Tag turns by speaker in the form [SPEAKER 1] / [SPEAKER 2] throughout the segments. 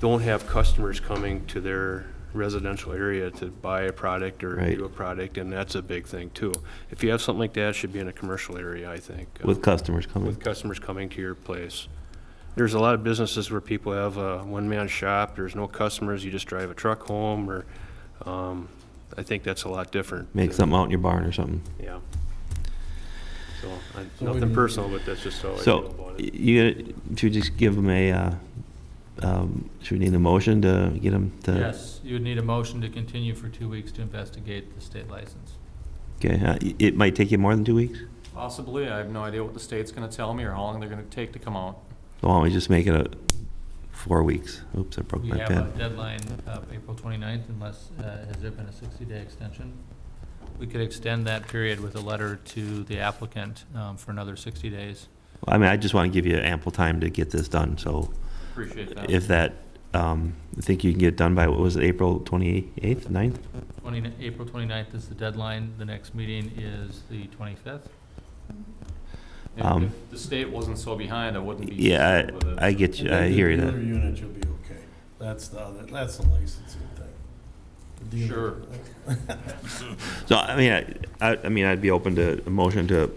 [SPEAKER 1] don't have customers coming to their residential area to buy a product or
[SPEAKER 2] Right.
[SPEAKER 1] do a product, and that's a big thing too. If you have something like that, it should be in a commercial area, I think. uh,
[SPEAKER 2] with customers coming.
[SPEAKER 1] With customers coming to your place. There's a lot of businesses where people have a one-man shop, there's no customers, you just drive a truck home, or, um, I think that's a lot different.
[SPEAKER 2] Make something out in your barn or something.
[SPEAKER 1] Yeah. So, I-
[SPEAKER 3] So we
[SPEAKER 1] nothing
[SPEAKER 3] need-
[SPEAKER 1] personal, but that's just how Oh, I feel
[SPEAKER 2] So
[SPEAKER 1] about
[SPEAKER 2] y-
[SPEAKER 1] it.
[SPEAKER 2] you, gonna- should we just give them a, uh, um, should we need a motion to get them to?
[SPEAKER 3] Yes, you would need a motion to continue for two weeks to investigate the state license.
[SPEAKER 2] Okay, uh, y- it might take you more than two weeks?
[SPEAKER 4] Possibly, I have no idea what the state's gonna tell me or how long they're gonna take to come out.
[SPEAKER 2] So Why don't we just make it a, four weeks? Oops, I broke
[SPEAKER 3] We
[SPEAKER 2] my
[SPEAKER 3] have a
[SPEAKER 2] pen.
[SPEAKER 3] deadline of April 29th, unless, uh, has there been a 60-day extension? We could extend that period with a letter to the applicant um, for another 60 days.
[SPEAKER 2] I mean, I just want to give you ample time to get this done, so
[SPEAKER 3] Appreciate that.
[SPEAKER 2] if that, um, I think you can get it done by, what was it, April twenty-eighth, ninth?
[SPEAKER 3] 20 April 29th is the deadline, the next meeting is the 25th.
[SPEAKER 4] If
[SPEAKER 2] Um,
[SPEAKER 4] if the state wasn't so behind, I wouldn't be.
[SPEAKER 2] Yeah,
[SPEAKER 4] concerned with it.
[SPEAKER 2] I, I get you, I hear you
[SPEAKER 5] The dealer
[SPEAKER 2] there.
[SPEAKER 5] unit, you'll be okay. That's the, other- that's the licensing thing. The dealer-
[SPEAKER 4] Sure.
[SPEAKER 2] So, I mean, I, I, I mean, I'd be open to a motion to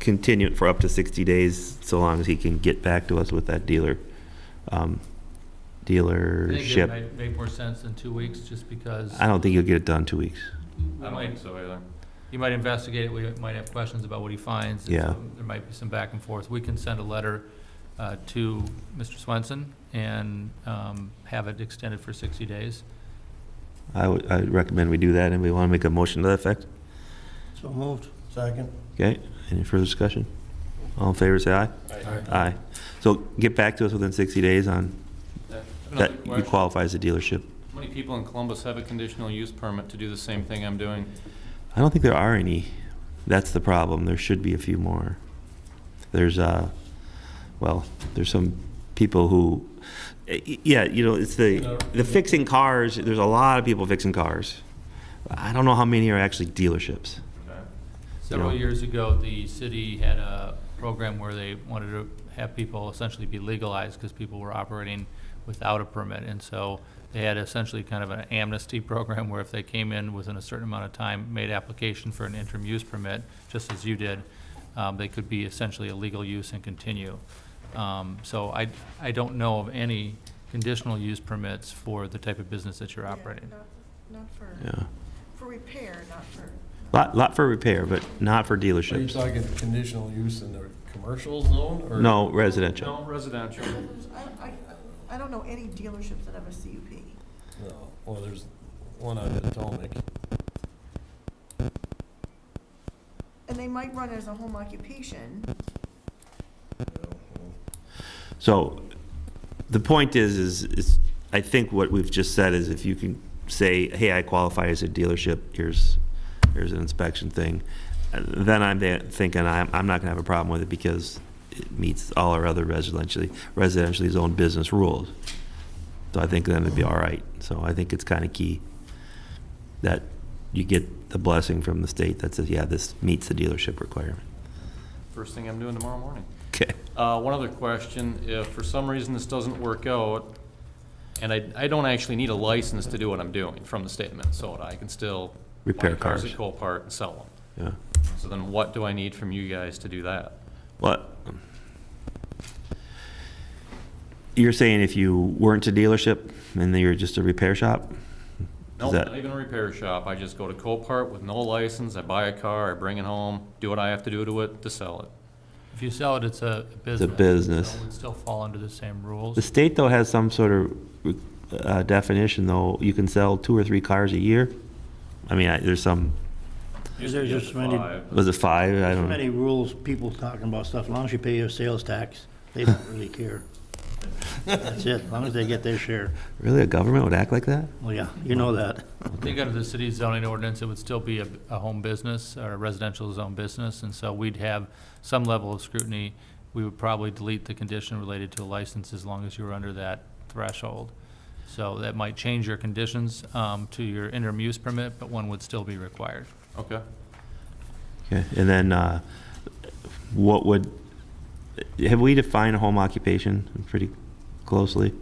[SPEAKER 2] continue it for up to sixty days, so long as he can get back to us with that dealer, um,
[SPEAKER 3] I think it
[SPEAKER 2] dealership.
[SPEAKER 3] might make more sense in two weeks, just because
[SPEAKER 2] I don't think you'll get it done in two weeks.
[SPEAKER 3] we
[SPEAKER 4] I uh, don't
[SPEAKER 3] might
[SPEAKER 4] think so either.
[SPEAKER 3] He might investigate it, we might have questions about what he finds. and
[SPEAKER 2] Yeah.
[SPEAKER 3] so There might be some back and forth. We can send a letter uh, to Mr. Swenson and um, have it extended for 60 days.
[SPEAKER 2] I would, I recommend we do that, and we want to make a motion to that effect.
[SPEAKER 5] So moved. Second.
[SPEAKER 2] Okay, any further discussion? All in favor, say aye. Aye. So get back to us within 60 days on,
[SPEAKER 4] Yeah. Another
[SPEAKER 2] that you
[SPEAKER 4] question.
[SPEAKER 2] qualify as a dealership.
[SPEAKER 4] How many people in Columbus have a conditional use permit to do the same thing I'm doing?
[SPEAKER 2] I don't think there are any. That's the problem. There should be a few more. There's, uh, well, there's some people who, eh, eh, yeah, you know, it's the, the fixing cars, there's a lot of people fixing cars. I don't know how many are actually dealerships.
[SPEAKER 3] Several
[SPEAKER 2] Yeah.
[SPEAKER 3] years ago, the city had a program where they wanted to have people essentially be legalized because people were operating without a permit. And so they had essentially kind of an amnesty program where if they came in within a certain amount of time, made application for an interim use permit, just as you did, um, they could be essentially a legal use and continue. Um, So I, I don't know of any conditional use permits for the type of business that you're
[SPEAKER 6] Yeah,
[SPEAKER 3] operating.
[SPEAKER 6] not- Not for,
[SPEAKER 2] Yeah.
[SPEAKER 6] for repair, not for.
[SPEAKER 2] Lot, lot for repair, but not for
[SPEAKER 5] Are you
[SPEAKER 2] dealerships.
[SPEAKER 5] talking conditional use in the commercial zone or?
[SPEAKER 2] No, residential.
[SPEAKER 4] No, residential.
[SPEAKER 6] I, I, I don't know any dealerships that have a CUP.
[SPEAKER 5] No, well, there's one on Potomac.
[SPEAKER 6] And they might run as a home occupation.
[SPEAKER 2] So the point is, is, is I think what we've just said is if you can say, hey, I qualify as a dealership, here's, here's an inspection thing, uh, then I'm there thinking I'm, I'm not gonna have a problem with it because it meets all our other residentially, residentially zoned business rules. So I think then it'd be all right. So I think it's kind of key that you get the blessing from the state that says, yeah, this meets the dealership requirement.
[SPEAKER 4] First thing I'm doing tomorrow morning.
[SPEAKER 2] Okay.
[SPEAKER 4] Uh, one other question, if for some reason this doesn't work out, and I, I don't actually need a license to do what I'm doing from the state of Minnesota, I can still.
[SPEAKER 2] Repair
[SPEAKER 4] buy
[SPEAKER 2] cars.
[SPEAKER 4] at Copart and sell
[SPEAKER 2] Yeah.
[SPEAKER 4] them. So then what do I need from you guys to do that?
[SPEAKER 2] What? You're saying if you weren't a dealership and you're just a repair shop?
[SPEAKER 4] No,
[SPEAKER 2] Is that-
[SPEAKER 4] not even a repair shop, I just go to Copart with no license, I buy a car, I bring it home, do what I have to do to it to sell it.
[SPEAKER 3] If you sell it, it's a business.
[SPEAKER 2] business.
[SPEAKER 3] So it would still fall under the same rules.
[SPEAKER 2] The state though has some sort of uh, definition though, you can sell two or three cars a year? I mean, I- there's some,
[SPEAKER 7] Is there just many,
[SPEAKER 4] Five.
[SPEAKER 2] was it five? I
[SPEAKER 7] so
[SPEAKER 2] don't
[SPEAKER 7] many
[SPEAKER 2] know.
[SPEAKER 7] rules, people talking about stuff, as long as you pay your sales tax, they don't really care. That's it, as long as they get their share.
[SPEAKER 2] Really, a government would act like that?
[SPEAKER 7] Well, yeah, you know that.
[SPEAKER 3] I think under the city's zoning ordinance, it would still be a, a home business or a residential zone business, and so we'd have some level of scrutiny. We would probably delete the condition related to a license as long as you were under that threshold. So that might change your conditions, um, to your interim use permit, but one would still be required.
[SPEAKER 4] Okay.
[SPEAKER 2] Okay, and then, uh, what would, have we defined a home occupation pretty closely?